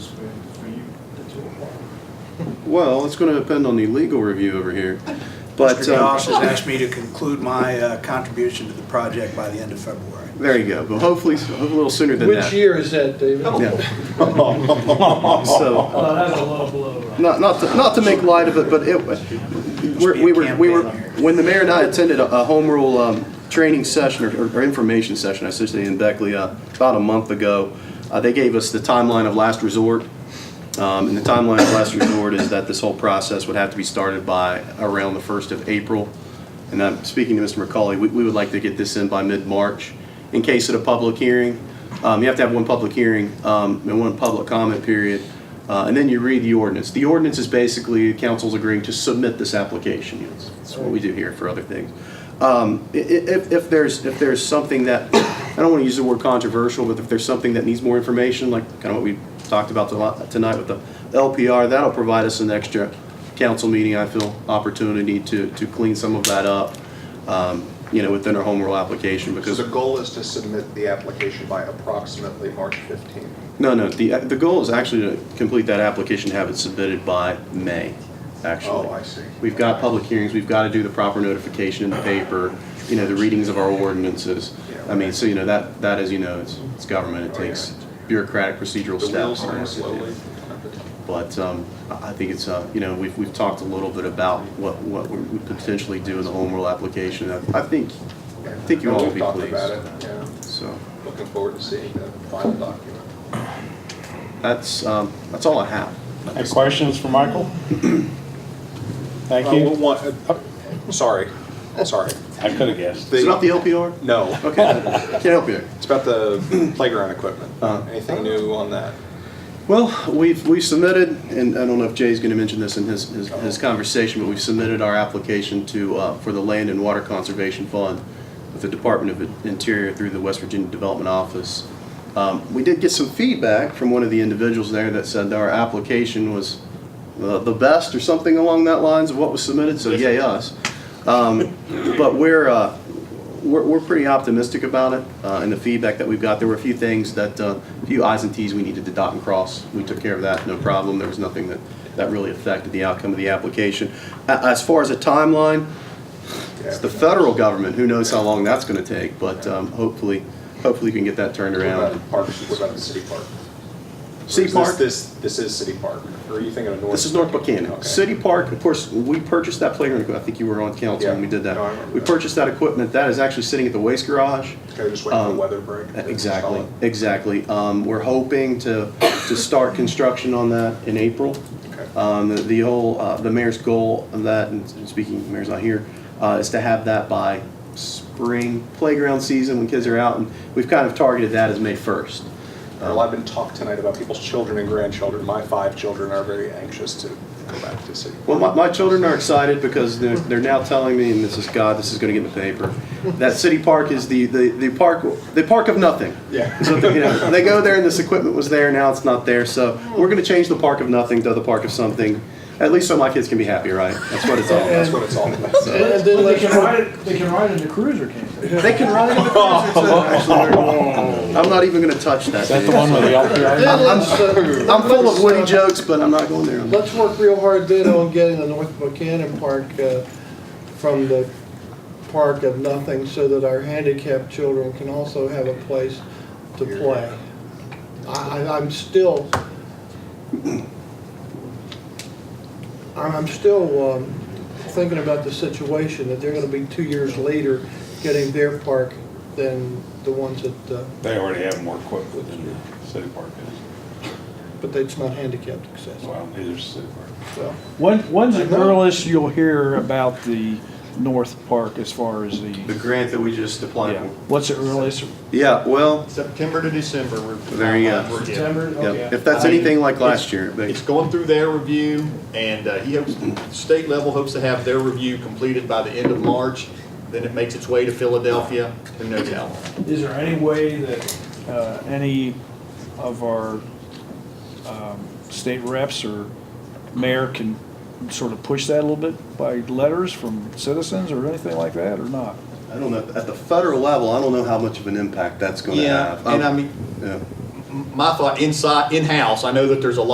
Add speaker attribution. Speaker 1: Well, it's going to depend on the legal review over here. But,
Speaker 2: Mr. Goss has
Speaker 1: um,
Speaker 2: asked me to conclude my uh, contribution to the project by the end of February.
Speaker 1: there you go. But hopefully, a little sooner than that.
Speaker 3: Which year is that, David?
Speaker 1: Yeah. So,
Speaker 4: Well, that's a low blow.
Speaker 1: not, not, to, not to make light of it, but it, we're, we were, we were, when the mayor and I attended a, a home rule, um, training session or, or information session, I should say, in Beckley, uh, about a month ago, uh, they gave us the timeline of last resort. Um, and the timeline of last resort is that this whole process would have to be started by around the first of April. And I'm speaking to Mr. McCauley, we, we would like to get this in by mid-March in case of the public hearing. Um, you have to have one public hearing, um, and one public comment period. Uh, and then you read the ordinance. The ordinance is basically council's agreeing to submit this application. That's- That's what we do here for other things. Um, i- i- if, if there's, if there's something that, I don't want to use the word controversial, but if there's something that needs more information, like kind of what we talked about to- tonight with the LPR, that'll provide us an extra council meeting, I feel, opportunity to, to clean some of that up, um, you know, within our home rule application
Speaker 5: So
Speaker 1: because.
Speaker 5: the goal is to submit the application by approximately March 15th.
Speaker 1: No, no, the, the goal is actually to complete that application, have it submitted by May, actually.
Speaker 5: Oh, I see.
Speaker 1: We've got public hearings, we've got to do the proper notification in the paper, you know, the readings of our ordinances. I mean, so, you know, that, that is, you know, it's, it's government, it takes bureaucratic procedural
Speaker 5: Oh, The
Speaker 1: steps.
Speaker 5: wheels turn slowly.
Speaker 1: But um, I I think it's, uh, you know, we've, we've talked a little bit about what, what we would potentially do in the home rule application. I I think, I think you all will be
Speaker 5: We've talked
Speaker 1: pleased,
Speaker 5: about it, yeah.
Speaker 1: so.
Speaker 5: Looking forward to seeing the final document.
Speaker 1: That's, um, that's all I have.
Speaker 6: Any questions for Michael? Thank
Speaker 5: Uh,
Speaker 6: you.
Speaker 5: one- uh, Sorry, sorry.
Speaker 6: I could have guessed.
Speaker 1: Is it not the LPR?
Speaker 5: No,
Speaker 1: Okay, can't help you.
Speaker 5: it's about the playground equipment.
Speaker 1: Uh-huh.
Speaker 5: Anything new on that?
Speaker 1: Well, we've, we submitted, and I don't know if Jay's gonna mention this in his, his, his conversation, but we've submitted our application to, uh, for the Land and Water Conservation Fund with the Department of Interior through the West Virginia Development Office. Um, we did get some feedback from one of the individuals there that said our application was the, the best or something along that lines of what was submitted, so yay us. Um, but we're, uh, we're, we're pretty optimistic about it, uh, and the feedback that we've got, there were a few things that, uh, a few i's and t's we needed to dot and cross. We took care of that, no problem, there was nothing that, that really affected the outcome of the application. A- as far as a timeline, it's the federal government, who knows how long that's gonna take, but, um, hopefully, hopefully we can get that turned
Speaker 5: What
Speaker 1: around.
Speaker 5: about parks, what about the city park? Or is
Speaker 1: City
Speaker 5: this-
Speaker 1: Park?
Speaker 5: This, this is city park, or are you thinking of North?
Speaker 1: This is North Buchanan.
Speaker 5: Okay.
Speaker 1: City Park, of course, we purchased that playground, equipment. I think you were on council when we did
Speaker 5: Yeah, no, I remember
Speaker 1: that. We
Speaker 5: that.
Speaker 1: purchased that equipment, that is actually sitting at the waste garage.
Speaker 5: Okay, just waiting for the
Speaker 1: Um,
Speaker 5: weather break. to install
Speaker 1: Exactly,
Speaker 5: it.
Speaker 1: exactly. Um, We're hoping to, to start construction on that in April.
Speaker 5: Okay.
Speaker 1: Um, the- The whole, uh, the mayor's goal of that, and speaking, the mayor's not here, uh, is to have that by spring playground season when kids are out. And we've kind of targeted that as May 1st.
Speaker 5: Uh, Well, I've been talked tonight about people's children and grandchildren. My five children are very anxious to go back to city.
Speaker 1: Well, my, my children are excited because they're, they're now telling me, and this is God, this is going to get in the paper, that City Park is the, the, the park, the park of nothing.
Speaker 5: Yeah.
Speaker 1: So, you know, they go there and this equipment was there, now it's not there, so we're going to change the park of nothing to the park of something. At least so my kids can be happy, right? That's what it's all
Speaker 5: That's
Speaker 1: about.
Speaker 5: what it's all about.
Speaker 3: And and then
Speaker 4: They
Speaker 3: let's,
Speaker 4: can ride, it- they can ride in the cruiser, can't they?
Speaker 1: They can ride in the cruiser too. Actually, I'm not even going to touch that.
Speaker 6: Is that the
Speaker 1: dude.
Speaker 6: one with the LPR?
Speaker 3: then let's, uh,
Speaker 1: I'm full of witty
Speaker 3: let's, uh,
Speaker 1: jokes, but I'm not going there.
Speaker 3: Let's work real hard then on getting the North Buchanan Park uh, from the park of nothing so that our handicapped children can also have a place to play. I, I- I'm still, I'm I'm still um, thinking about the situation that they're gonna be two years later getting their park than the ones that, uh,
Speaker 6: They already have more equipment than the city park is.
Speaker 3: but it's not handicapped accessible,
Speaker 6: Well, neither is city park.
Speaker 3: so.
Speaker 4: When, when's the
Speaker 3: I know.
Speaker 4: earliest you'll hear about the North Park as far as the,
Speaker 1: grant that we just applied
Speaker 4: yeah, what's the earliest?
Speaker 1: Yeah, well,
Speaker 7: September to December. we're-
Speaker 1: There you go.
Speaker 7: we're-
Speaker 4: September,
Speaker 7: yeah.
Speaker 1: yeah, if that's anything like last year. but-
Speaker 7: It's going through their review, and uh, he hopes, state level hopes to have their review completed by the end of March. Then it makes its way to Philadelphia, who knows how long.
Speaker 4: Is there any way that, uh, any of our, um, state reps or mayor can sort of push that a little bit by letters from citizens or anything like that, or not?
Speaker 1: I don't know, at the federal level, I don't know how much of an impact that's gonna
Speaker 7: Yeah,
Speaker 1: have.
Speaker 7: and I
Speaker 1: Um,
Speaker 7: mean,
Speaker 1: yeah.
Speaker 7: my thought, inside, in-house, I know that there's a lot